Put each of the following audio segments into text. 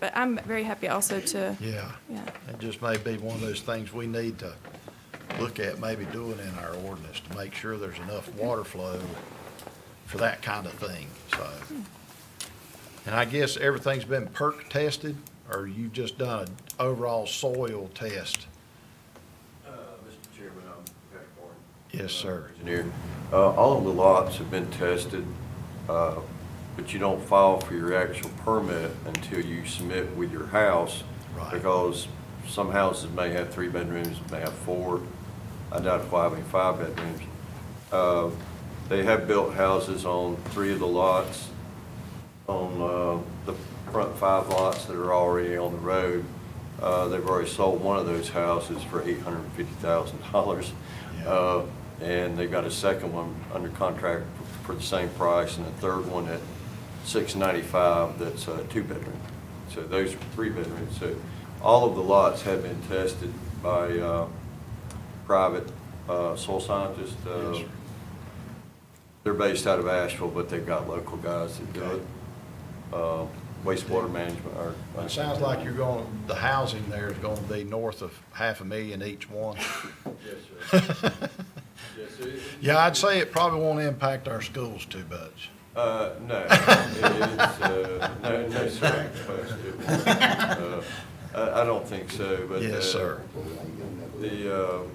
But I'm very happy also to, Yeah, yeah, it just may be one of those things we need to look at maybe doing in our ordinance to make sure there's enough water flow for that kind of thing, so. And I guess everything's been perk tested, or you've just done an overall soil test? Uh, Mr. Chairman, I'm Patrick Warren. Yes, sir. Uh, Engineer. Uh, All of the lots have been tested, uh, but you don't file for your actual permit until you submit with your house. Right. Because some houses may have three bedrooms, may have four. I doubt if I have any five bedrooms. Uh, They have built houses on three of the lots, on uh, the front five lots that are already on the road. Uh, They've already sold one of those houses for $850,000. Yeah. Uh, And they've got a second one under contract for the same price, and a third one at $695 that's a two-bedroom. So those are three-bedrooms. So all of the lots have been tested by uh, private uh, soil scientists. uh, Yes, sir. They're based out of Asheville, but they've got local guys that do it. Uh, Wastewater management or. It sounds like you're going, the housing there is gonna be north of half a million each one. Yes, sir. Yeah, I'd say it probably won't impact our schools too much. Uh, no, it is, uh, no, no, sir. It won't. Uh, I, I don't think so, but. Yes, uh, sir. The, um,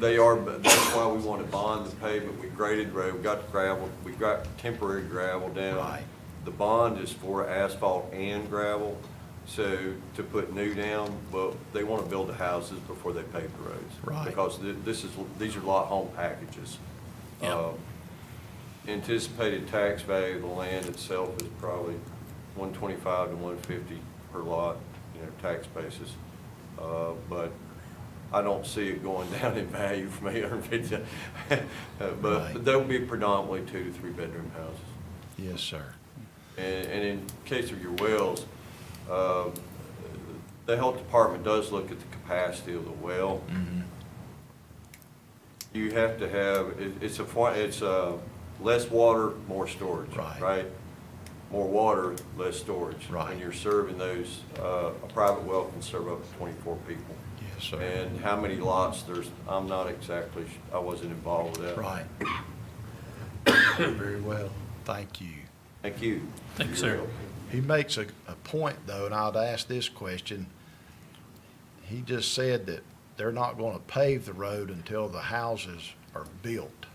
they are, but that's why we want to bond the pavement. We graded road, we got gravel, we got temporary gravel down. Right. The bond is for asphalt and gravel, so to put new down, well, they want to build the houses before they pave the roads. Right. Because thi- this is, these are lot home packages. Yeah. Um, Anticipated tax value of the land itself is probably one twenty-five to one fifty per lot, you know, tax basis. Uh, but I don't see it going down in value from eight hundred fifty. Right. But they'll be predominantly two to three bedroom houses. Yes, sir. And, and in case of your wells, uh, the health department does look at the capacity of the well. mm-hmm. You have to have, it, it's a, fi- it's a less water, more storage, Right. right? More water, less storage. Right. When you're serving those, uh, a private well can serve up to twenty-four people. Yes, sir. And how many lots, there's, I'm not exactly, su- I wasn't involved with that. Right. Very well, thank you. Thank you. Thanks, sir. He makes a, a point, though, and I'd ask this question. He just said that they're not gonna pave the road until the houses are built.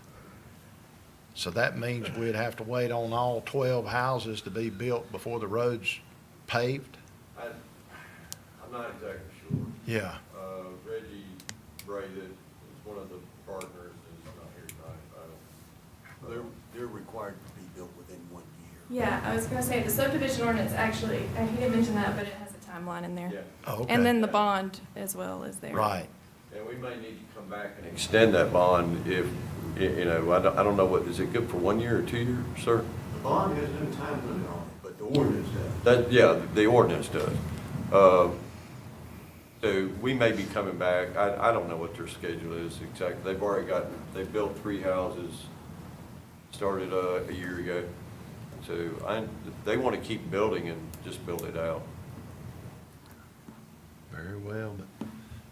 So that means we'd have to wait on all twelve houses to be built before the road's paved? I, I'm not exactly sure. Yeah, Uh, Reggie Bray, that is one of the partners, is not here tonight. I don't- They're, they're required to be built within one year. yeah, I was gonna say, the subdivision ordinance actually, I didn't mention that, but it has a timeline in there. Yeah, Oh, okay. And then the bond as well is there. Right, and we may need to come back and extend that bond if, y- you know, I don't, I don't know what, is it good for one year or two year, sir? The bond has no time limit on it, but the ordinance does. That, yeah, the ordinance does. Uh, So we may be coming back, I, I don't know what their schedule is exactly. They've already got, they built three houses, started uh, a year ago. So I, they want to keep building and just build it out. very well, but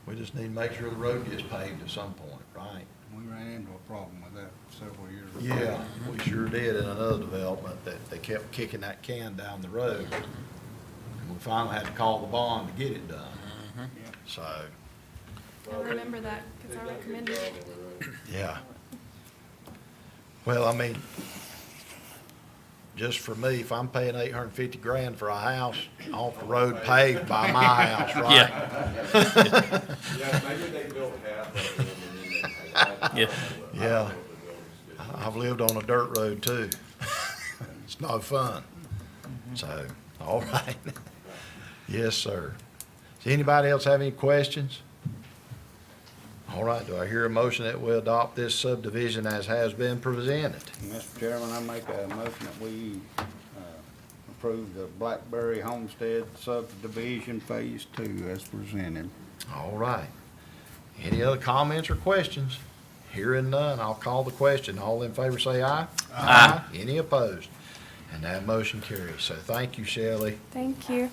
we just need to make sure the road gets paved at some point, right? We ran into a problem with that several years ago. Yeah, we sure did in another development that they kept kicking that can down the road. And we finally had to call the bond to get it done. So, I remember that, because I recommended it. yeah. Well, I mean, just for me, if I'm paying eight hundred and fifty grand for a house off the road paved by my house, right? Yeah, maybe they built half of them and Yeah. Yeah. Uh-huh. I've lived on a dirt road too. It's no fun. So, all right. Yes, sir. Does anybody else have any questions? All right, do I hear a motion that we adopt this subdivision as has been presented? Mr. Chairman, I make a motion that we uh, approve the Blackberry Homestead subdivision phase two as presented. All right. Any other comments or questions? Hearing none, I'll call the question. All in favor say aye. Aye. Any opposed? And that motion carries. So thank you, Shelley. Thank you.